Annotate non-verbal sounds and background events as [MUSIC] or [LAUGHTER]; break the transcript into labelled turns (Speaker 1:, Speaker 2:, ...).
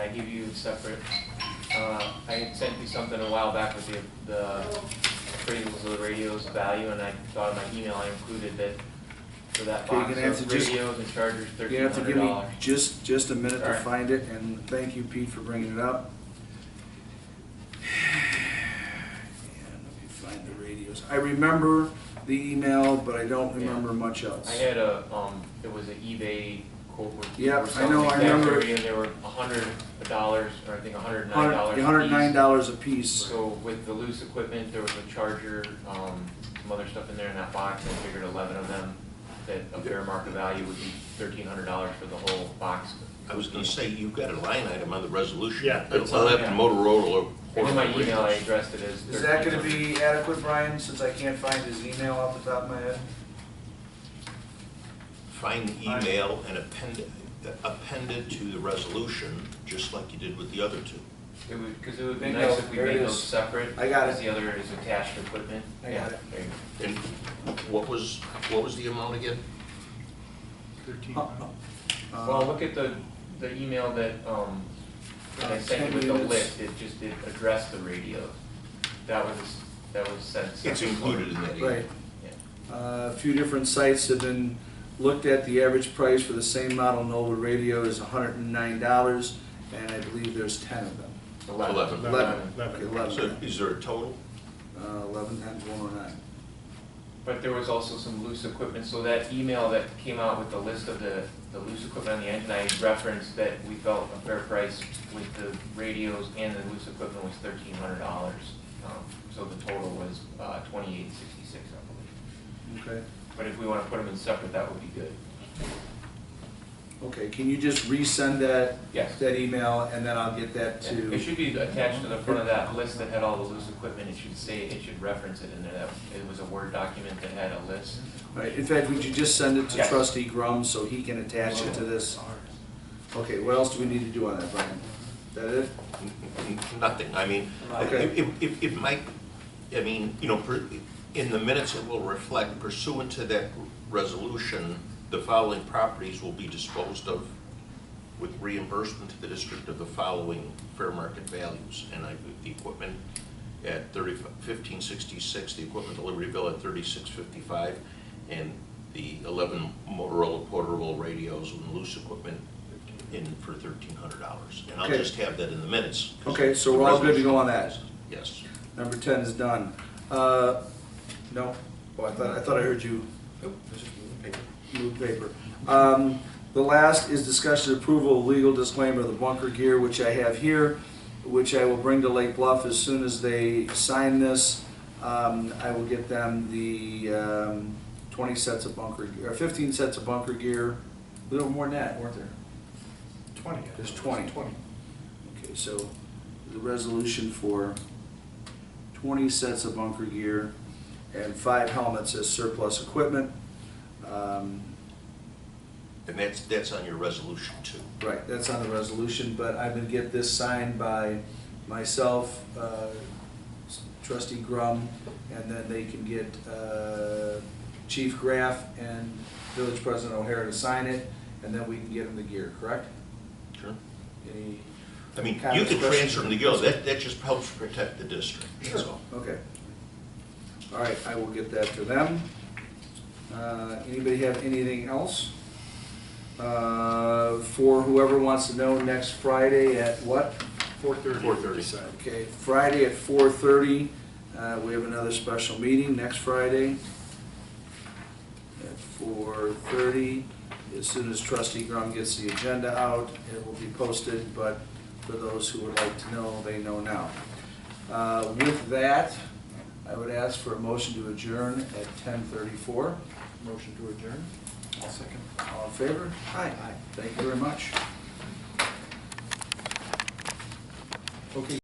Speaker 1: give you separate, uh, I had sent you something a while back with the, the appraisals of the radio's value, and I thought in my email I included that for that
Speaker 2: Okay, you're
Speaker 1: box
Speaker 2: gonna have to
Speaker 1: of
Speaker 2: just-
Speaker 1: radios and chargers,
Speaker 2: You
Speaker 1: thirteen
Speaker 2: have to
Speaker 1: hundred
Speaker 2: give me
Speaker 1: dollars.
Speaker 2: just, just a minute to
Speaker 1: Alright.
Speaker 2: find it, and thank you, Pete, for bringing it up. [SIGHS] And let me find the radios. I remember the email, but I don't
Speaker 1: Yeah.
Speaker 2: remember much else.
Speaker 1: I had a, um, it was an eBay quote or
Speaker 2: Yep,
Speaker 1: or
Speaker 2: I
Speaker 1: something
Speaker 2: know, I
Speaker 1: like
Speaker 2: remember.
Speaker 1: that, and there were a hundred dollars, or I think a hundred and nine dollars.
Speaker 2: Hundred nine dollars a piece.
Speaker 1: So with the loose equipment, there was a charger, um, some other stuff in there in that box, and I figured eleven of them, that a fair market value would be thirteen hundred dollars for the whole box.
Speaker 2: Uh,
Speaker 3: I was gonna say, you've got a line item on the resolution.
Speaker 4: Yeah, it's
Speaker 3: I'll
Speaker 4: on-
Speaker 3: have to Motorola or.
Speaker 1: In my email, I addressed it as thirteen hundred.
Speaker 2: Is that gonna be adequate, Brian, since I can't find his email off the top of my head?
Speaker 3: Find the email and append, append it to the resolution, just like you did with the other two.
Speaker 1: It would, because it would be
Speaker 2: Bingo,
Speaker 1: nice if we
Speaker 2: there it
Speaker 1: made those
Speaker 2: is.
Speaker 1: separate.
Speaker 2: I got
Speaker 1: Because
Speaker 2: it.
Speaker 1: the other is attached equipment.
Speaker 2: I
Speaker 1: Yeah,
Speaker 2: got it.
Speaker 1: there you go.
Speaker 3: And what was, what was the amount again?
Speaker 2: Uh,
Speaker 1: Well, look at the, the email that, um, that I
Speaker 2: Uh,
Speaker 1: sent you with
Speaker 2: 10
Speaker 1: the
Speaker 2: minutes.
Speaker 1: list, it just, it addressed the radio. That was, that was sent.
Speaker 3: It's included in that email.
Speaker 2: Um, Right.
Speaker 1: Yeah.
Speaker 2: Uh, A few different sites have been looked at, the average price for the same model Nova radio is hundred and nine dollars, and I believe there's ten of them.
Speaker 3: Eleven.
Speaker 2: Eleven,
Speaker 4: Eleven.
Speaker 2: Okay,
Speaker 3: So
Speaker 2: eleven,
Speaker 3: is there a total?
Speaker 2: uh, eleven times one oh nine.
Speaker 1: But there was also some loose equipment, so that email that came out with the list of the, the loose equipment on the engine, I referenced that we felt a fair price with the radios and the loose equipment was thirteen hundred dollars. Um, So the total was, uh, twenty-eight sixty-six, I believe.
Speaker 2: Okay,
Speaker 1: But if we wanna put them in separate, that would be good.
Speaker 2: okay, can you just resend that?
Speaker 1: Yes.
Speaker 2: That email, and then I'll get that to.
Speaker 1: It should be attached to the front of that list that had all the loose equipment, it should say, it should reference it in there, that it was a Word document that had a list.
Speaker 2: Right, in fact, would you just send it to
Speaker 1: Yes.
Speaker 2: trustee Grum so he can attach it to this? Okay, what else do we need to do on that, Brian? Is that it?
Speaker 3: Nothing, I mean,
Speaker 2: Okay.
Speaker 3: it, it, it might, I mean, you know, per- in the minutes it will reflect pursuant to that resolution, the following properties will be disposed of with reimbursement to the district of the following fair market values. And I, the equipment at thirty, fifteen sixty-six, the equipment delivery bill at thirty-six fifty-five, and the eleven Motorola portable radios and loose equipment in for thirteen hundred dollars. And I'll
Speaker 2: Okay.
Speaker 3: just have that in the minutes.
Speaker 2: Okay, so we're all good to go on that?
Speaker 3: Yes.
Speaker 2: Number ten is done. Uh, no, oh, I thought, I thought I heard you move paper. Um, the last is discussion approval of legal disclaimer of the bunker gear, which I have here, which I will bring to Lake Bluff as soon as they sign this. Um, I will get them the, um, twenty sets of bunker, ge- or fifteen sets of bunker gear, a little more than that, weren't there?
Speaker 4: Twenty.
Speaker 2: There's 20.
Speaker 4: Twenty.
Speaker 2: Okay, so the resolution for twenty sets of bunker gear and five helmets as surplus equipment. Um,
Speaker 3: And that's, that's on your resolution too.
Speaker 2: Right, that's on the resolution, but I'm gonna get this signed by myself, uh, trustee Grum, and then they can get uh, Chief Graff and Village President O'Hara to sign it, and then we can get them the gear, correct?
Speaker 3: Sure.
Speaker 2: Any
Speaker 3: I mean, you
Speaker 2: comments,
Speaker 3: can
Speaker 2: questions?
Speaker 3: transfer them to Gil, that, that just helps protect the district, that's all.
Speaker 2: Okay. All right, I will get that to them. Uh, Anybody have anything else? Uh, For whoever wants to know, next Friday at what?
Speaker 4: Four thirty.
Speaker 3: Four thirty.
Speaker 2: Okay, Friday at four thirty, uh, we have another special meeting next Friday at four thirty. As soon as trustee Grum gets the agenda out, it will be posted, but for those who would like to know, they know now. Uh, with that, I would ask for a motion to adjourn at ten thirty-four.
Speaker 4: Motion to adjourn? I'll second.
Speaker 2: All in favor? Aye. Thank you very much. Okay,